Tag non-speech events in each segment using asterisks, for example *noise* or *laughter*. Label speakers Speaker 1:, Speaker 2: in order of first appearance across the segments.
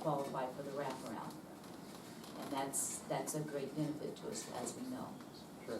Speaker 1: qualify for the wraparound. And that's, that's a great benefit to us, as we know.
Speaker 2: Sure.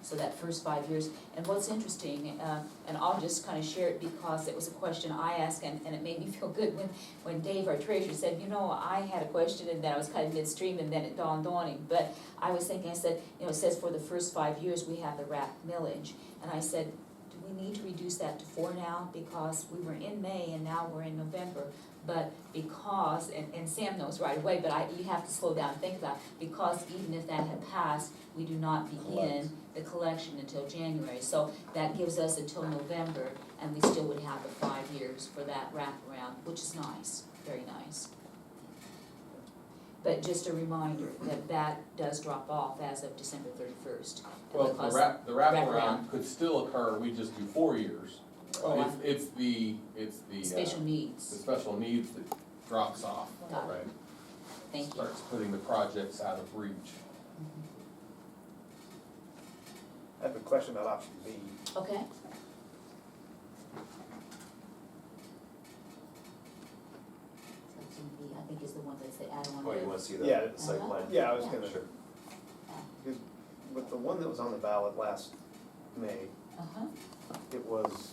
Speaker 1: So that first five years, and what's interesting, uh, and I'll just kind of share it because it was a question I asked and, and it made me *laughs* feel good when, when Dave, our treasurer, said, you know, I had a question and then I was kind of midstream and then it dawned on him. But I was thinking, I said, you know, it says for the first five years, we have the RAP millage. And I said, do we need to reduce that to four now? Because we were in May and now we're in November. But because, and, and Sam knows right away, but I, you have to slow down and think about, it, because even if that had passed, we do not begin the collection until January. So that gives us until November, and we still would have the five years for that wraparound, which is nice, very nice. But just a reminder that that does drop off as of December thirty-first.
Speaker 2: Well, the wrap, the wraparound could still occur, we just do four years.
Speaker 1: Oh,
Speaker 2: It's, it's the, it's the, uh,
Speaker 1: Special
Speaker 2: the
Speaker 1: needs,
Speaker 2: special needs that drops off,
Speaker 1: Got
Speaker 2: right?
Speaker 1: thank you.
Speaker 2: Starts putting the projects out of reach.
Speaker 3: I have a question about option B.
Speaker 1: Okay, option B, I think is the one that's the add-on.
Speaker 4: Oh, you wanna see that?
Speaker 3: Yeah.
Speaker 4: the
Speaker 1: Uh-huh.
Speaker 4: Site plan?
Speaker 3: Yeah, I was
Speaker 1: Yeah.
Speaker 3: gonna,
Speaker 4: Sure.
Speaker 3: because with the one that was on the ballot last May,
Speaker 1: Uh-huh,
Speaker 3: it was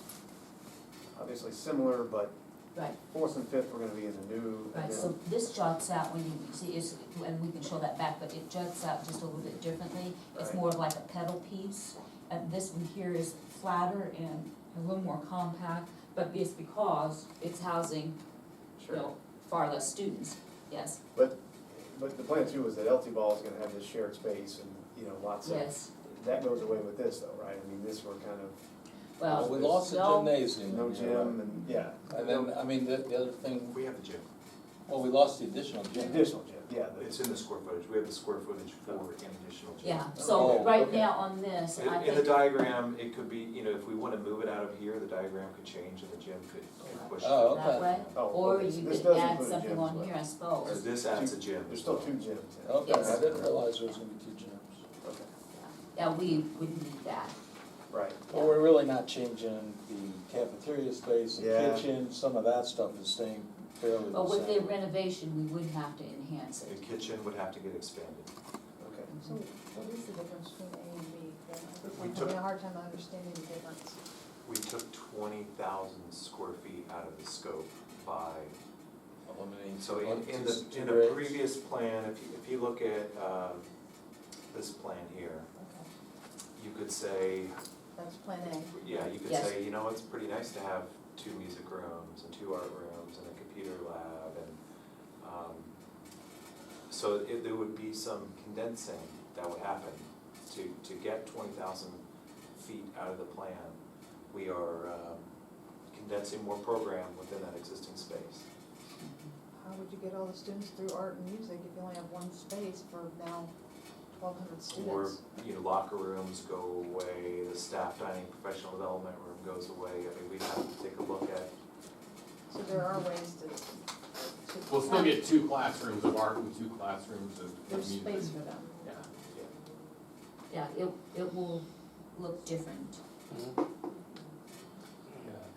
Speaker 3: obviously similar, but
Speaker 1: right,
Speaker 3: fourth and fifth were gonna be in the new. and
Speaker 1: right,
Speaker 3: then-
Speaker 1: so this jots out when you, you see, is, and we can show that back, but it jots out just a little bit differently. It's
Speaker 3: Right.
Speaker 1: more of like a pedal piece, and this one here is flatter and a little more compact, but it's because it's housing, you
Speaker 3: Sure.
Speaker 1: know, far less students, yes,
Speaker 3: But, but the plan too was that LT Ball is gonna have this shared space and, you know, lots of.
Speaker 1: yes,
Speaker 3: That goes away with this though, right? I mean, this were kind of
Speaker 1: well,
Speaker 5: We lost the
Speaker 1: Oh, no,
Speaker 5: gymnasium.
Speaker 3: no gym and, yeah,
Speaker 5: And then, I mean, the, the other thing,
Speaker 4: We have a gym,
Speaker 5: well, we lost the additional gym.
Speaker 3: additional gym, yeah. the-
Speaker 4: it's in the square footage, we have the square footage for an additional gym.
Speaker 1: Yeah, so
Speaker 5: Oh,
Speaker 1: right
Speaker 3: okay.
Speaker 1: now on this, I
Speaker 4: In, in the
Speaker 1: think,
Speaker 4: diagram, it could be, you know, if we wanna move it out of here, the diagram could change and the gym could, could push. it.
Speaker 5: Oh, okay.
Speaker 1: That way?
Speaker 3: Oh,
Speaker 1: or
Speaker 3: okay, so
Speaker 1: you
Speaker 3: this
Speaker 1: could
Speaker 3: does
Speaker 1: add
Speaker 3: include a gym
Speaker 1: something
Speaker 3: as
Speaker 1: on
Speaker 3: well.
Speaker 1: here, I
Speaker 4: So
Speaker 1: suppose.
Speaker 4: this adds a gym.
Speaker 3: There's still two gyms. yeah.
Speaker 5: Okay, I
Speaker 1: Yes.
Speaker 5: didn't realize there was gonna be two gyms.
Speaker 3: Okay,
Speaker 1: Yeah, we would need that,
Speaker 3: right.
Speaker 5: Well, we're really not changing the cafeteria space, the
Speaker 3: Yeah.
Speaker 5: kitchen, some of that stuff is staying fairly the
Speaker 1: but with the
Speaker 5: same.
Speaker 1: renovation, we would have to enhance
Speaker 4: The
Speaker 1: it.
Speaker 4: kitchen would have to get expanded.
Speaker 3: Okay.
Speaker 6: So what is the difference between A and B? Then
Speaker 4: We
Speaker 6: I'm
Speaker 4: took-
Speaker 6: having a hard time understanding the difference.
Speaker 4: We took twenty thousand square feet out of the scope by
Speaker 5: Eliminating.
Speaker 4: So in, in the,
Speaker 5: two-
Speaker 4: in the
Speaker 5: two grades.
Speaker 4: previous plan, if you, if you look at, uh, this plan here,
Speaker 6: Okay,
Speaker 4: you could say,
Speaker 6: that's plan A.
Speaker 4: yeah, you could
Speaker 1: Yes.
Speaker 4: say, you know, it's pretty nice to have two music rooms and two art rooms and a computer lab and, um, so it, there would be some condensing that would happen to, to get twenty thousand feet out of the plan. We are, um, condensing more program within that existing space.
Speaker 6: How would you get all the students through art and music if you only have one space for now twelve hundred
Speaker 4: Or,
Speaker 6: students?
Speaker 4: you know, locker rooms go away, the staff dining, professional development room goes away, I mean, we have to take a look at.
Speaker 6: So there are ways to, to.
Speaker 2: We'll still get two classrooms of art and two classrooms of of
Speaker 6: There's
Speaker 2: music.
Speaker 6: space for them.
Speaker 2: Yeah,
Speaker 1: Yeah, it, it will look different.
Speaker 2: yeah.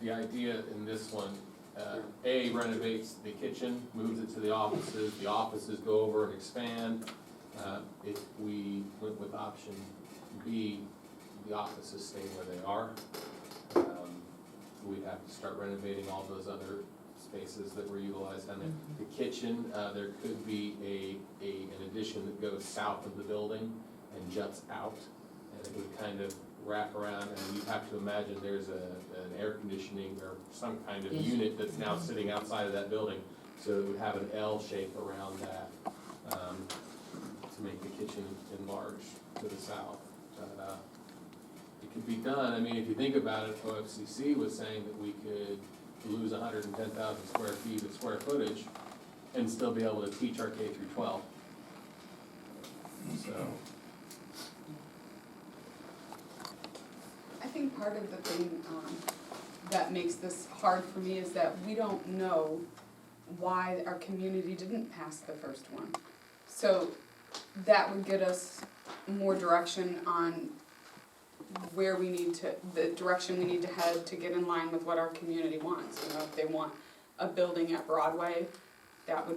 Speaker 2: The idea in this one, uh, A renovates the kitchen, moves it to the offices, the offices go over and expand. Uh, if we went with option B, the offices stay where they are. Um, We'd have to start renovating all those other spaces that were utilized on it. The kitchen, uh, there could be a, a, an addition that goes south of the building and juts out. And it would kind of wrap around, and you have to imagine there's a, an air conditioning or some kind of
Speaker 1: Yes.
Speaker 2: unit that's now sitting outside of that building. So it would have an L shape around that, um, to make the kitchen enlarged to the south. But, uh, it could be done, I mean, if you think about it, OFCC was saying that we could lose hundred and ten thousand square feet of square footage and still be able to teach our K through twelve. So,
Speaker 7: I think part of the thing um, that makes this hard for me is that we don't know why our community didn't pass the first one. So that would get us more direction on where we need to, the direction we need to head to get in line with what our community wants. You know, if they want a building at Broadway, that would